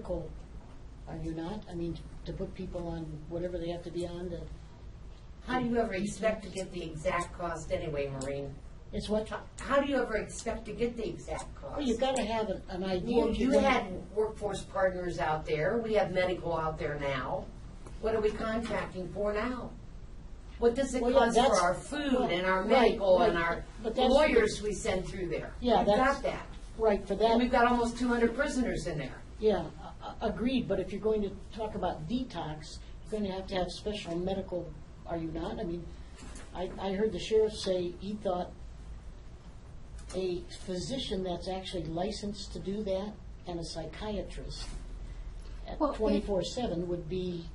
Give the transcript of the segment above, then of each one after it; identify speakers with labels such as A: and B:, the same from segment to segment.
A: critical, are you not? I mean, to put people on whatever they have to be on, that,
B: How do you ever expect to get the exact cost anyway, Maureen?
A: it's what,
B: How- How do you ever expect to get the exact
A: well,
B: cost?
A: you've got to have an- an idea.
B: You,
A: what
B: you
A: you're gonna-
B: had workforce partners out there, we have medical out there now. What are we contracting for now? What does it
A: Well, yeah,
B: cost for
A: that's-
B: our food and our
A: right,
B: medical and
A: right,
B: our
A: but that's-
B: lawyers we send through there?
A: Yeah,
B: We've got
A: that's-
B: that.
A: Right, for
B: And we've
A: that,
B: got almost two hundred prisoners in there.
A: yeah, a- a- agreed, but if you're going to talk about detox, you're going to have to have special medical, are you not? I mean, I, I heard the sheriff say he thought a physician that's actually licensed to do that and a psychiatrist at
C: Well, it-
A: twenty-four seven would be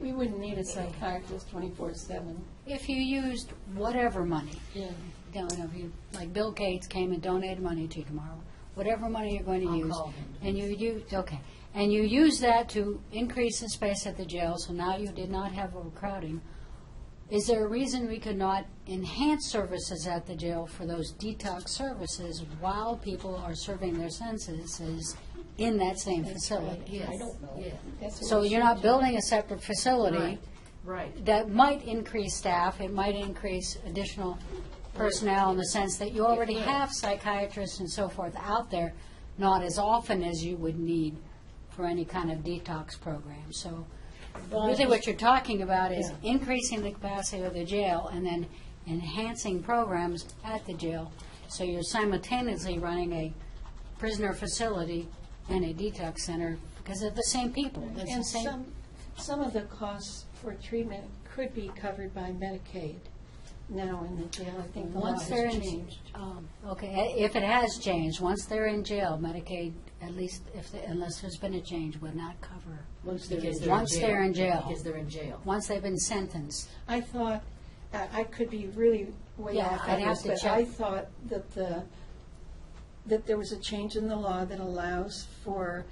C: We wouldn't need a psychiatrist twenty-four seven. If you used whatever money,
A: Yeah,
C: don't know, if you, like Bill Gates came and donated money to you tomorrow, whatever money you're going to use.
B: call him.
C: And you used, okay, and you use that to increase the space at the jail, so now you did not have overcrowding. Is there a reason we could not enhance services at the jail for those detox services while people are serving their sentences in that same facility?
B: Yes,
A: I don't know.
B: yes.
C: So you're not building a separate facility
B: Right, right.
C: that might increase staff, it might increase additional personnel in the sense that you already
B: It will.
C: have psychiatrists and so forth out there, not as often as you would need for any kind of detox program. So
A: Well, I
C: really what
A: just-
C: you're talking about is
A: Yeah.
C: increasing the capacity of the jail and then enhancing programs at the jail. So you're simultaneously running a prisoner facility and a detox center because they're the same people. That's the
D: And
C: same-
D: some, some of the costs for treatment could be covered by Medicaid now in the jail. I think the law
C: Once they're
D: has
C: in,
D: changed.
C: um, okay, i- if it has changed, once they're in jail, Medicaid, at least if, they- unless there's been a change, would not cover.
A: once they're
B: Because
A: in
C: they're in Once
B: jail.
C: they're in jail.
B: Because they're in jail.
C: Once they've been sentenced,
D: I thought, I I could be really way
C: Yeah,
D: off
C: I'd
D: on
C: have
D: this,
C: to
D: but
C: check.
D: I thought that the, that there was a change in the law that allows for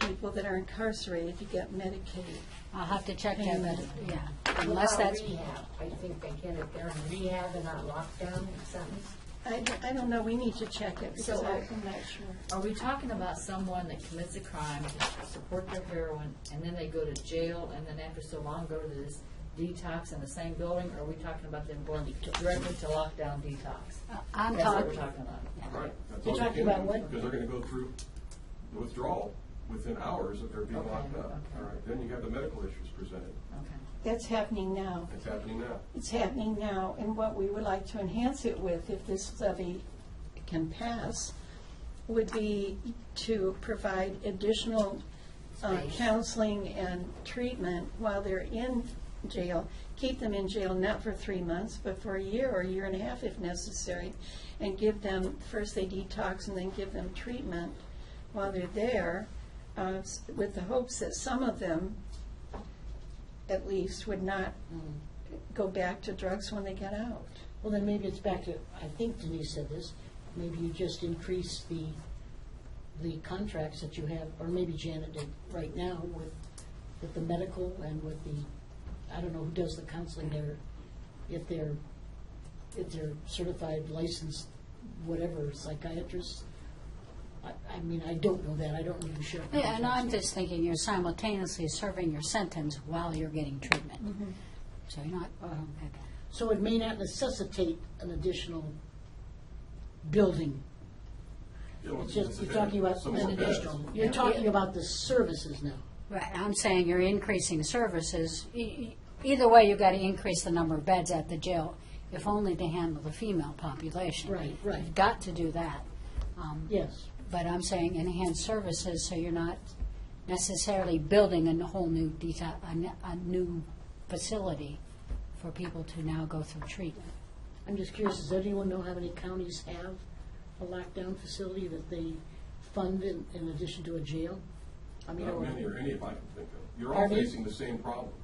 D: people that are incarcerated to get Medicaid.
C: I'll have to check that, but, yeah,
B: Mm. What
C: unless
B: about
C: that's,
B: rehab? I think they get it, they're in rehab and not locked down or something.
D: I, I don't know, we need to check it because
E: So-
D: I- I'm not sure.
E: Are we talking about someone that commits a crime, to support their heroin, and then they go to jail, and then after so long go to this detox in the same building? Or are we talking about them going directly to lockdown detox?
B: Uh,
C: I'm
E: That's what we're
C: talking,
E: talking about.
F: Right.
A: You're
F: That's what they're
A: talking about
F: doing,
A: what?
F: Because they're gonna go through the withdrawal within hours of their being
E: Okay,
F: locked up.
E: okay.
F: All right, then you have the medical issues presented.
E: Okay.
D: That's happening now.
F: It's happening now.
D: It's happening now, and what we would like to enhance it with, if this levy can pass, would be to provide additional uh,
B: Space.
D: counseling and treatment while they're in jail. Keep them in jail not for three months, but for a year or a year and a half if necessary, and give them, first they detox and then give them treatment while they're there, uh, s- with the hopes that some of them, at least, would not go back to drugs when they get out.
A: Well, then maybe it's back to, I think Denise said this, maybe you just increase the, the contracts that you have, or maybe Janet did right now with, with the medical and with the, I don't know who does the counseling there, if they're, if they're certified, licensed, whatever, psychiatrists. I, I mean, I don't know that, I don't know the sheriff.
C: yeah, and I'm just thinking you're simultaneously serving your sentence while you're getting
B: Mm-hmm.
C: treatment. So you're not, oh, okay.
A: So it may not necessitate an additional building.
F: It'll
A: It's
F: be
A: just, you're
F: incident-
A: talking about,
F: some more beds.
A: you're talking about the services now.
C: Right, I'm saying you're increasing services. E- e- Either way, you've got to increase the number of beds at the jail, if only to handle the female population.
A: Right, right.
C: You've got to do that. Um,
A: Yes,
C: But I'm saying enhance services, so you're not necessarily building a whole new deta, a n- a new facility for people to now go through treatment.
A: I'm just curious, does anyone know how many counties have a lockdown facility that they fund in, in addition to a jail? I mean,
F: Not
A: or-
F: many or any if I can think of. You're all
A: Pardon me?
F: facing the same problems.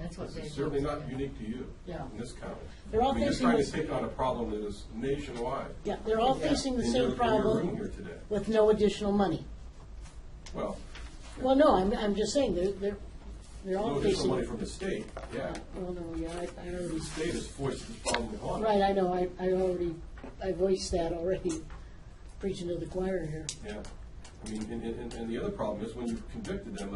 E: That's what they.
F: It's certainly not unique to you.
A: Yeah.
F: In this county.
A: They're all
F: I mean,
A: facing
F: You're
A: the-
F: trying to take on a problem that is nationwide.
A: yeah, they're all facing the
F: In
A: same
F: your- In your room here
A: problem
F: today.
A: with no additional money.
F: Well,
A: Well, no, I'm, I'm just saying, they're, they're, they're all
F: no additional
A: facing.
F: money from the state, yeah.
A: Well, no, yeah, I, I already,
F: The state has forced this problem upon us.
A: right, I know, I, I already, I voiced that already, preaching to the choir here.
F: Yeah. I mean, and, and, and the other problem is when you've convicted them